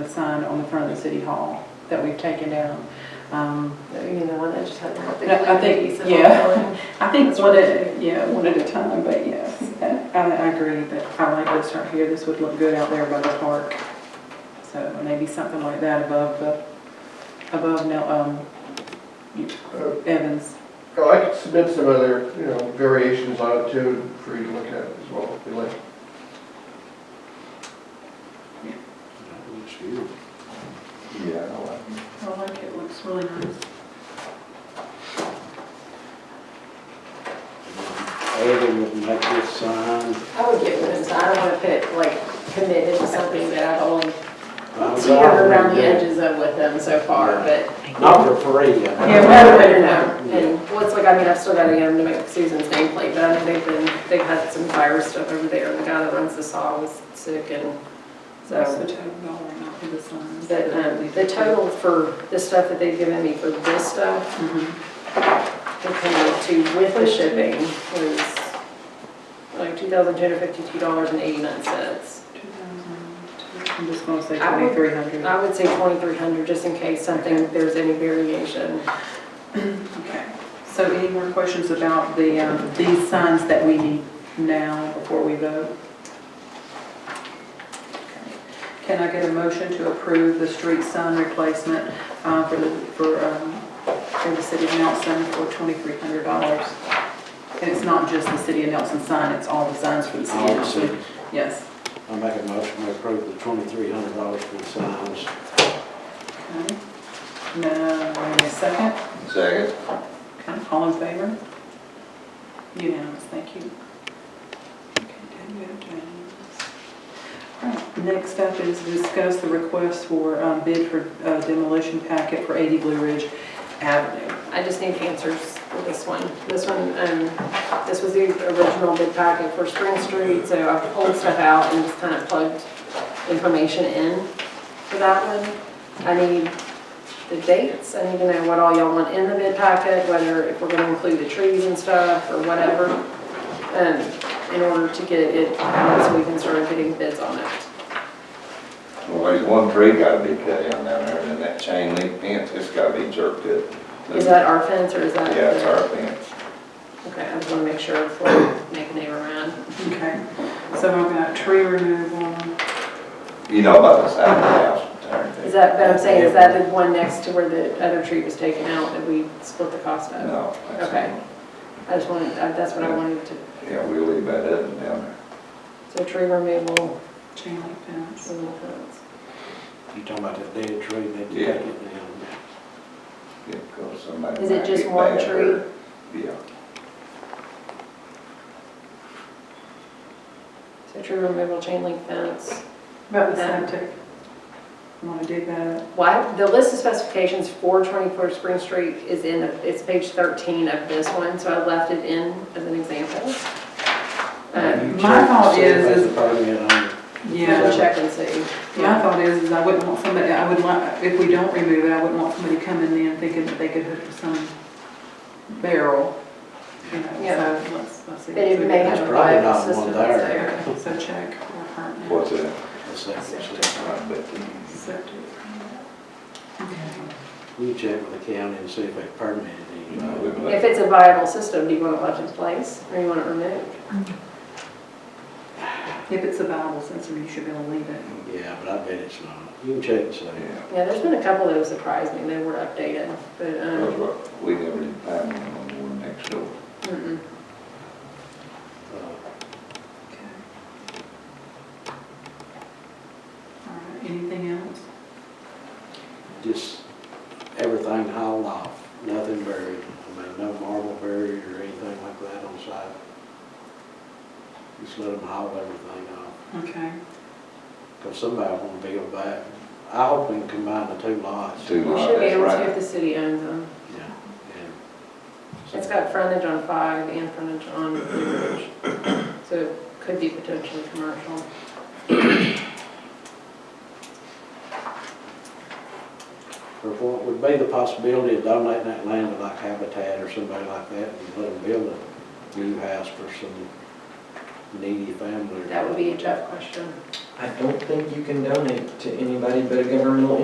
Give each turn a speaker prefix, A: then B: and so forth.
A: one on the front of the city hall that we've taken down. Um,
B: You mean the one that just had the big
A: I think-
B: piece of
A: yeah.
B: all-
A: I think
B: That's
A: one
B: right.
A: at, yeah, one at a time, but yes, I, I agree that I like this right here, this would look good out there by the park. So maybe something like that above the, above now, um, you- Evans.
C: Oh, I could submit some other, you know, variations on it too, for you to look at as well, if you like.
D: Yeah, I don't like it.
A: I like it, looks really nice.
E: Other would make this sign,
B: I would get rid of this, I don't want to put, like, committed to something that I've only
E: I was
B: tinkered around
E: offering
B: the
E: it,
B: edges of with them so far, but.
E: not for free.
A: Yeah,
B: Yeah,
A: well,
B: better, better now. And, well, it's like, I mean, I've still got to get them to make Susan's nameplate, but I know they've been, they've had some virus stuff over there. The guy that runs the saw was sick and
A: That's the
B: so.
A: total dollar, not for the signs.
B: But, um, the total for the stuff that they've given me for this stuff,
A: Mhm.
B: compared to with the shipping was like two thousand two hundred fifty-two dollars and eighty-nine cents.
A: 2002. I'm just gonna say
B: I would-
A: twenty-three hundred.
B: I would say twenty-three hundred, just in case something, there's any variation.
A: Okay. So any more questions about the, um, these signs that we need now before we vote? Okay. Can I get a motion to approve the street sign replacement uh, for the, for, um, for the city of Nelson for twenty-three hundred dollars? And it's not just the city of Nelson sign, it's all the signs for the city of
E: I'll
A: Nelson.
E: see.
A: Yes.
E: I make a motion to approve the twenty-three hundred dollars for the signs.
A: Okay. Now, wait a second.
D: Second?
A: Okay, all in favor? Unanimous, thank you. Okay, ten vote, unanimous. All right, Next up is discuss the request for um, bid for uh, demolition packet for 80 Blue Ridge Avenue.
B: I just need answers for this one. This one, um, this was the original bid packet for Spring Street, so I pulled stuff out and just kind of plugged information in for that one. I need the dates, I need to know what all y'all want in the bid packet, whether if we're gonna include the trees and stuff or whatever, um, in order to get it out so we can start getting bids on it.
D: Well, there's one tree gotta be cut down down there, and then that chain link fence, it's gotta be jerked up.
B: Is that our fence or is that?
D: Yeah, it's our fence.
B: Okay, I just wanna make sure before we make a name around.
A: Okay, so I've got tree removal.
D: You know about the side of the house.
B: Is that, but I'm saying, is that the one next to where the other tree was taken out that we split the cost of?
D: No. that's-
B: Okay. I just wanted, I- that's what I wanted to,
D: Yeah, we'll leave that up and down
B: so tree removal,
A: Chain link fence.
B: some of
E: You talking about that dead tree, they take
D: Yeah.
E: it down.
D: there. Yeah, 'cause somebody
B: Is it
D: might
B: just
D: get
B: one
D: mad or-
B: tree?
D: Yeah.
B: So tree removal, chain link fence.
A: About the septic. Want to dig that up?
B: Why, the list of specifications for 24 Spring Street is in, the- it's page 13 of this one, so I left it in as an example.
E: Uh,
B: Um,
A: My thought is-
E: That's
A: is-
E: a permit on it.
B: so Check and see.
A: My thought is, is I wouldn't want somebody, I would like, if we don't remove it, I wouldn't want somebody coming in thinking that they could hook some barrel. you know,
B: Yeah.
A: So let's, let's see.
B: But it may
E: There's
B: have a
E: probably
B: viable
E: not one
B: system
E: there.
B: that's there.
A: Okay, So check. or permit.
D: What's that?
E: That's that, that's that.
D: I bet you-
A: Septic. Okay.
E: You check with the county and see if they permitted it.
D: you know, we'd let-
B: If it's a viable system, do you want it left in place or you want it removed?
A: If it's a viable system, you should be able to leave it.
E: Yeah, but I bet it's not. You can check and see.
D: Yeah,
B: Yeah, there's been a couple that surprised me, they were updated, but,
D: that's
B: um,
D: what, we never did find one on the one next door.
B: mm-mm.
E: Uh,
A: Okay. All right, anything else?
E: just everything hauled off, nothing buried. I mean, no marble buried or anything like that on site. Just let them haul everything off,
A: Okay.
E: because somebody wanna build back. I hope we can combine the two lots.
D: Two
B: We
D: lots,
B: should be
D: that's
B: able to if
D: right.
B: the city owns them.
E: Yeah, and-
B: It's got frontage on Five and frontage on Blue Ridge, so it could be potentially commercial.
E: Or what would be the possibility of donating that land to like Habitat or somebody like that and let them build a new house for some needy family? or
B: That would be a tough question.
E: something.
F: I don't think you can donate to anybody but a governmental